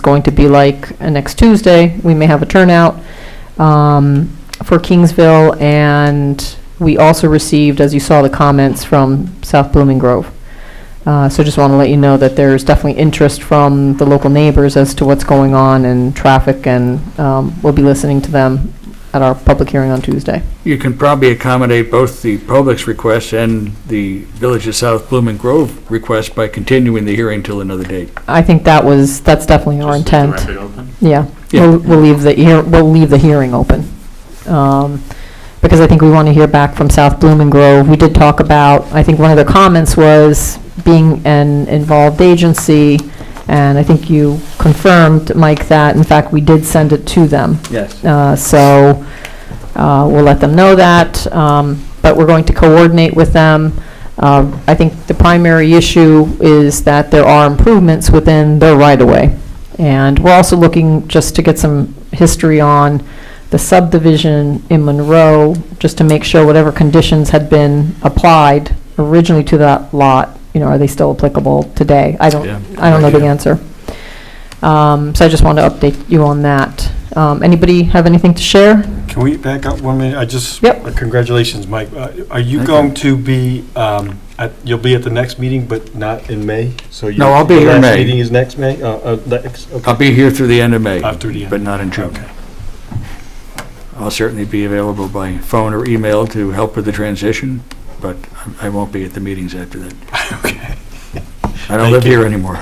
going to be like uh, next Tuesday. We may have a turnout um, for Kingsville, and we also received, as you saw, the comments from South Blooming Grove. Uh, So just want to let you know that there's definitely interest from the local neighbors as to what's going on and traffic, and um, we'll be listening to them at our public hearing on Tuesday. You can probably accommodate both the public's request and the Village of South Blooming Grove request by continuing the hearing till another date. I think that was, that's definitely our Just leave intent. the record open? Yeah, Yeah. we'll, we'll leave the, hear- we'll leave the hearing open. Um, Because I think we want to hear back from South Bloom and Grove. We did talk about, I think one of the comments was being an involved agency, and I think you confirmed, Mike, that in fact, we did send it to them. Yes. Uh, So uh, we'll let them know that, um, but we're going to coordinate with them. Uh, I think the primary issue is that there are improvements within their right-of-way. And we're also looking just to get some history on the subdivision in Monroe, just to make sure whatever conditions had been applied originally to that lot, you know, are they still applicable today? I don't, Yeah. I don't know the Yeah. answer. Um, So I just wanted to update you on that. Um, Anybody have anything to share? Can we back up one minute? I just. uh, Yep. Congratulations, Mike. Uh, Are you Thank going to be, um, at- you'll be at the next meeting, but not in May? So you- No, I'll be here in Your last May. meeting is next May? Uh, uh, next, I'll okay. be here through the end of May, After Uh, the end. but not in June. Okay. I'll certainly be available by phone or email to help with the transition, but I I won't be at the meetings after that. Okay. I don't Thank live you. here anymore.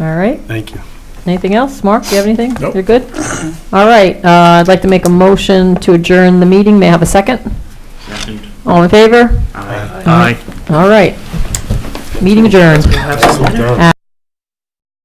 All right, Thank you. anything else? Mark, you have anything? Nope. You're good? All right, uh, I'd like to make a motion to adjourn the meeting. May I have a second? Second. All in favor? Aye. All right, meeting adjourned.